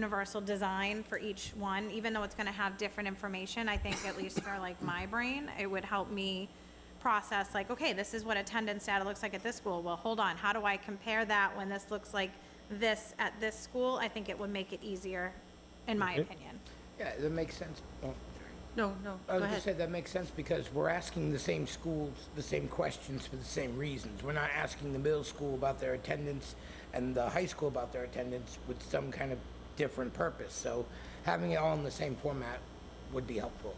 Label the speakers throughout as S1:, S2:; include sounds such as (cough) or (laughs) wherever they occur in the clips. S1: universal design for each one, even though it's going to have different information, I think at least for like my brain, it would help me process like, okay, this is what attendance data looks like at this school. Well, hold on, how do I compare that when this looks like this at this school? I think it would make it easier, in my
S2: Okay.
S1: opinion.
S3: Yeah, that makes sense. Oh,
S4: No, no,
S3: I
S4: go
S3: was just
S4: ahead.
S3: say, that makes sense because we're asking the same schools the same questions for the same reasons. We're not asking the middle school about their attendance and the high school about their attendance with some kind of different purpose. So having it all in the same format would be helpful.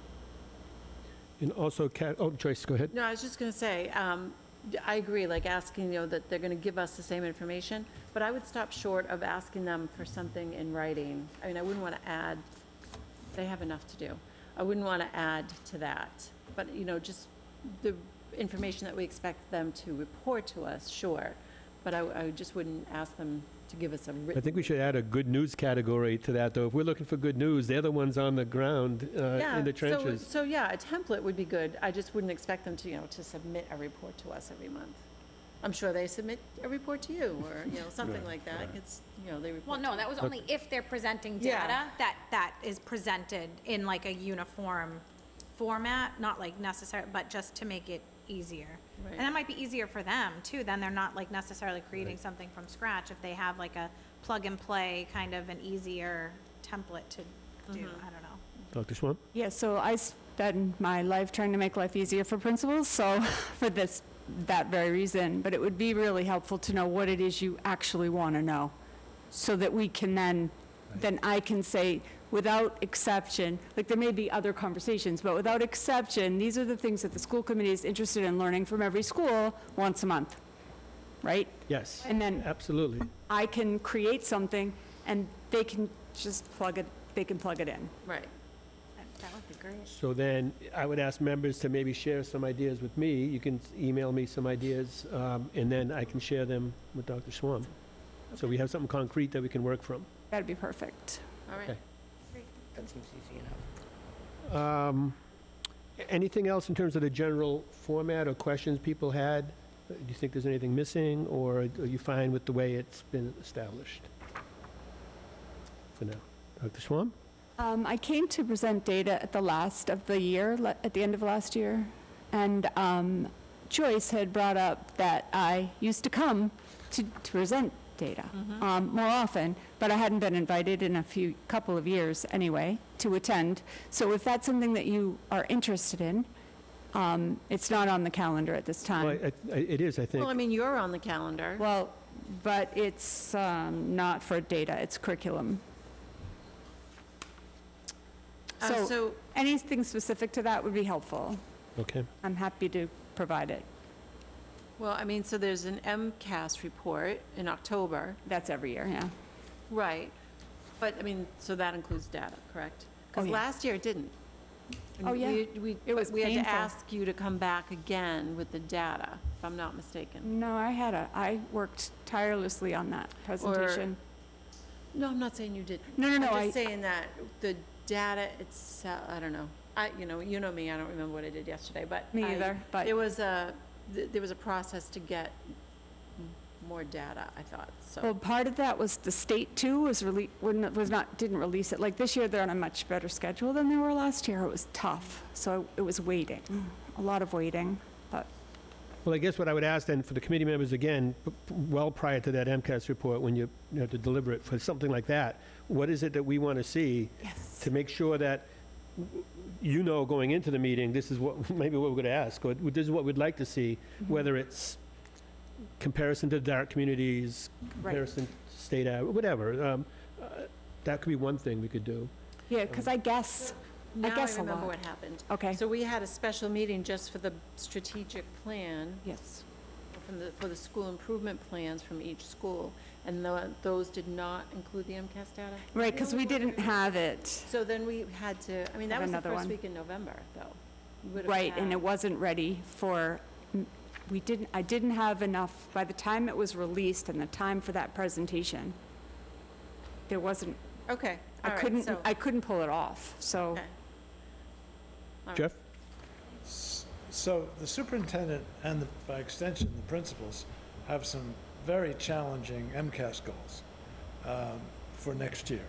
S2: And also, Kat, oh, Joyce, go ahead.
S4: No, I was just going to say, um, d- I agree, like asking, you know, that they're going to give us the same information, but I would stop short of asking them for something in writing. I mean, I wouldn't want to add, they have enough to do. I wouldn't want to add to that, but, you know, just the information that we expect them to report to us, sure, but I, I just wouldn't ask them to give us a written.
S2: I think we should add a good news category to that, though. If we're looking for good news, they're the ones on the ground uh,
S4: Yeah,
S2: in the
S4: so-
S2: trenches.
S4: So, yeah, a template would be good. I just wouldn't expect them to, you know, to submit a report to us every month. I'm sure they submit a report to you, or, you know, something like that. It's, you know, they
S1: Well,
S4: report.
S1: no, that was only if they're presenting
S4: Yeah.
S1: data, that, that is presented in like a uniform format, not like necessary, but just to make it easier. And that
S4: Right.
S1: might be easier for them too, then they're not like necessarily creating something from scratch if they have like a plug and play kind of an easier template to do, I don't know.
S2: Dr. Swam?
S5: Yeah, so I spend my life trying to make life easier for principals, so (laughs) for this, that very reason. But it would be really helpful to know what it is you actually want to know, so that we can then, then I can say, without exception, like there may be other conversations, but without exception, these are the things that the school committee is interested in learning from every school once a month, right?
S2: Yes,
S5: And then
S2: absolutely.
S5: I can create something, and they can just plug it, they can plug it in.
S4: Right.
S1: That- That would be great.
S2: So then, I would ask members to maybe share some ideas with me. You can email me some ideas, um, and then I can share them with Dr. Swam. So we have something concrete that we can work from.
S5: That'd be perfect.
S4: All right.
S2: Okay.
S3: That seems easy enough.
S2: Um, a- Anything else in terms of the general format or questions people had? Uh, Do you think there's anything missing, or are you fine with the way it's been established? For now. Dr. Swam?
S5: Um, I came to present data at the last of the year, le- at the end of last year, and um, Joyce had brought up that I used to come to, to present data um, more often, but I hadn't been invited in a few, couple of years anyway, to attend. So if that's something that you are interested in, um, it's not on the calendar at this
S2: Well,
S5: time.
S2: I- I- It is, I
S4: Well, I
S2: think.
S4: mean, you're on the calendar.
S5: Well, but it's um, not for data, it's curriculum.
S4: Uh,
S5: so-
S4: So,
S5: Anything specific to that would be helpful.
S2: Okay.
S5: I'm happy to provide it.
S4: well, I mean, so there's an MCAS report in October.
S5: That's every year, yeah.
S4: Right. But, I mean, so that includes data, correct?
S5: Oh,
S4: Because
S5: yeah.
S4: last year it didn't. And
S5: Oh,
S4: we-
S5: yeah.
S4: We,
S5: It was
S4: we had to
S5: painful.
S4: ask you to come back again with the data, if I'm not mistaken.
S5: No, I had a, I worked tirelessly on that presentation.
S4: No, I'm not saying you didn't.
S5: No, no, no,
S4: I'm
S5: I,
S4: just saying that the data itself, I don't know. I, you know, you know me, I don't remember what I did yesterday, but.
S5: me
S4: I-
S5: either, but,
S4: There was a, th- there was a process to get m- more data, I thought, so.
S5: well, part of that was the state too was really, wouldn't, was not, didn't release it. Like this year, they're on a much better schedule than they were last year. It was tough, so it was waiting, a lot of waiting.
S2: Well, I guess what I would ask then for the committee members again, p- p- well prior to that MCAS report, when you you have to deliver it for something like that, what is it that we want to see
S5: Yes.
S2: to make sure that w- you know going into the meeting, this is what, (laughs) maybe what we're going to ask, or this is what we'd like to see, whether it's comparison to dark communities, comparison to state, av- whatever. um, uh, That could be one thing we could do.
S5: Yeah, because I guess, I
S4: Now I
S5: guess a
S4: remember
S5: lot.
S4: what happened.
S5: okay,
S4: So we had a special meeting just for the strategic plan,
S5: yes.
S4: from the, for the school improvement plans from each school, and tho- those did not include the MCAS data?
S5: Right, because we didn't have it,
S4: So then we had to, I mean, that
S5: Have
S4: was the
S5: another
S4: first
S5: one.
S4: week in November, though. We would've
S5: right, and
S4: had-
S5: it wasn't ready for, we didn't, I didn't have enough, by the time it was released and the time for that presentation, there wasn't,
S4: Okay,
S5: I
S4: all right,
S5: couldn't,
S4: so-
S5: I couldn't pull it off, so.
S4: Okay. All right.
S2: Jeff?
S6: S- So the superintendent and the- by extension, the principals have some very challenging MCAS goals um, for next year.